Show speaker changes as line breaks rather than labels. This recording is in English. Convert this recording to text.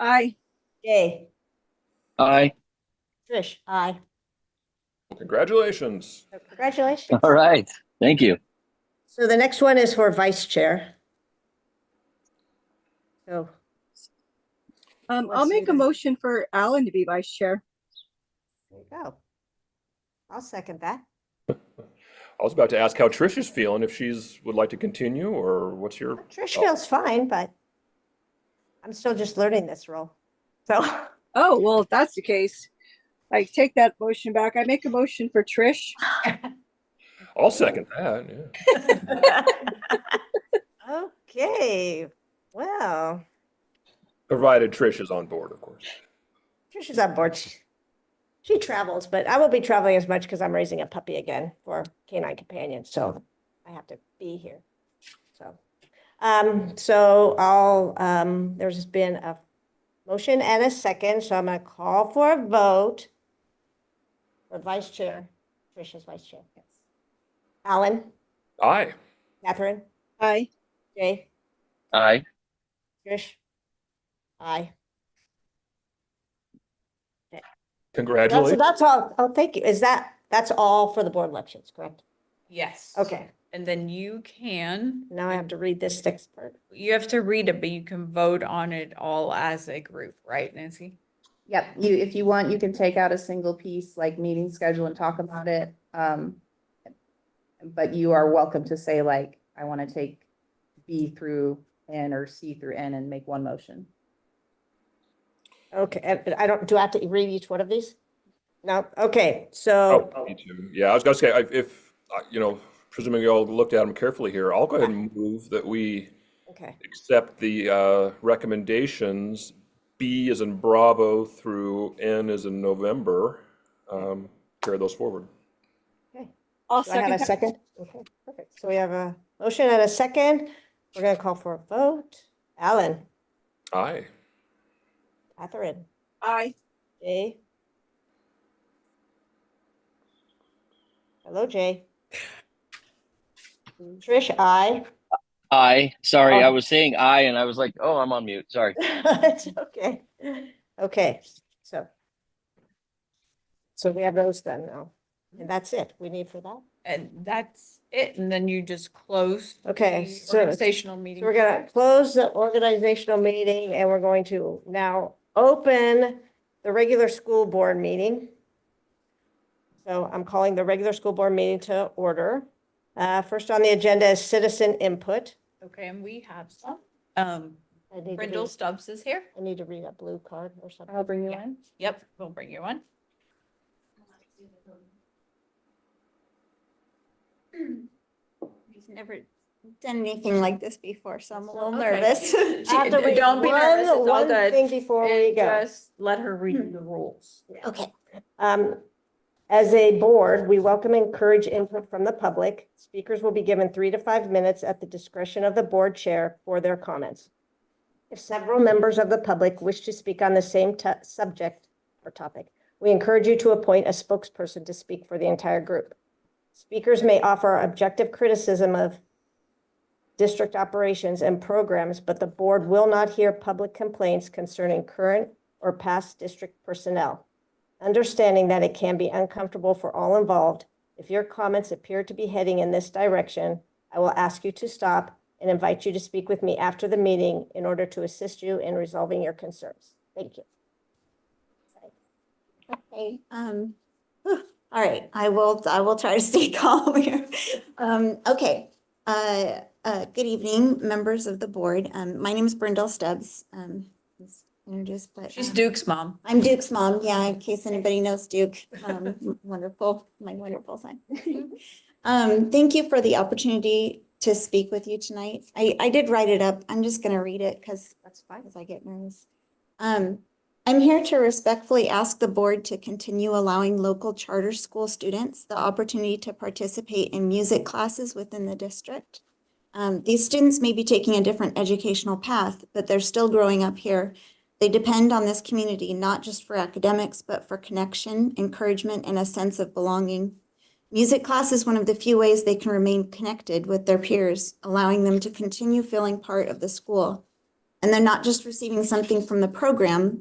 Aye.
Jay,
Aye.
Trish, aye.
Well, Congratulations.
So Congratulations.
All right. Thank you.
So the next one is for vice chair. So,
Um,
Let's
I'll
do
make a
that.
motion for Alan to be vice chair.
there you go. I'll second that.
I was about to ask how Trish is feeling, if she's would like to continue or what's your,
Trish feels fine, but I'm still just learning this role. So,
Oh, well, if that's the case, I take that motion back. I make a motion for Trish.
I'll second that, yeah.
okay, well,
Provided Trish is on board, of course.
Trish is on board. She- She travels, but I won't be traveling as much because I'm raising a puppy again for canine companion, so I have to be here. So, um, so I'll, um, there's been a motion and a second, so I'm gonna call for a vote. For vice chair, Trish is vice chair. yes. Alan,
Aye.
Catherine,
Aye.
Jay?
Aye.
Trish? Aye. That's,
Congratulations.
that's all. Oh, thank you. Is that, that's all for the board elections, correct?
Yes.
Okay,
And then you can,
now I have to read this sixth part.
you have to read it, but you can vote on it all as a group, right, Nancy?
Yep, you, if you want, you can take out a single piece, like meeting schedule and talk about it. Um, but you are welcome to say like, I want to take B through N or C through N and make one motion.
Okay, and- and I don't, do I have to read each one of these? No, okay,
Oh,
so,
me too. Yeah, I was gonna say, I- if, I- you know, presuming you all looked at them carefully here, I'll go ahead and move that we
okay,
accept the uh, recommendations, B is in Bravo through N is in November. Um, Carry those forward.
okay.
I'll
Do I
second.
have a
that.
second? Okay, perfect. So we have a motion and a second. We're gonna call for a vote. Alan,
Aye.
Catherine,
Aye.
Jay? Hello, Jay? Trish, aye.
Aye. Sorry, I
Oh.
was saying aye and I was like, oh, I'm on mute. Sorry.
It's okay. Okay, so. So we have those done now. And that's it. We need for that.
And that's it. And then you just close.
Okay,
the
so-
Organizational meeting.
So we're gonna close the organizational meeting and we're going to now open the regular school board meeting. So I'm calling the regular school board meeting to order. Uh, first on the agenda is citizen input.
Okay, and we have some. Um,
I need to read-
Brindle Stubbs is here.
I need to read a blue card or something.
I'll bring you
Yeah.
in.
Yep, we'll bring you one.
He's never done anything like this before, so I'm a little
Okay.
nervous.
I have to
She-
read
Don't be nervous,
one-
it's all
one
good.
Thing before we
And
go.
just let her read the rules.
Hmm.
Okay. Um, as a board, we welcome and encourage input from the public. Speakers will be given three to five minutes at the discretion of the board chair for their comments. If several members of the public wish to speak on the same to- subject or topic, we encourage you to appoint a spokesperson to speak for the entire group. Speakers may offer objective criticism of district operations and programs, but the board will not hear public complaints concerning current or past district personnel understanding that it can be uncomfortable for all involved. If your comments appear to be heading in this direction, I will ask you to stop and invite you to speak with me after the meeting in order to assist you in resolving your concerns. Thank you.
Okay, um, whew, all right, I will, I will try to stay calm here. Um, okay, uh, uh, good evening, members of the board. Um, my name is Brindle Stubbs. Um, was introduced, but.
She's
um,
Duke's mom.
I'm Duke's mom, yeah, in case anybody knows Duke. Um, wonderful, my wonderful son. Um, thank you for the opportunity to speak with you tonight. I, I did write it up. I'm just gonna read it because
That's fine.
as I get nervous. Um, I'm here to respectfully ask the board to continue allowing local charter school students the opportunity to participate in music classes within the district. Um, these students may be taking a different educational path, but they're still growing up here. They depend on this community, not just for academics, but for connection, encouragement, and a sense of belonging. Music class is one of the few ways they can remain connected with their peers, allowing them to continue feeling part of the school. And they're not just receiving something from the program,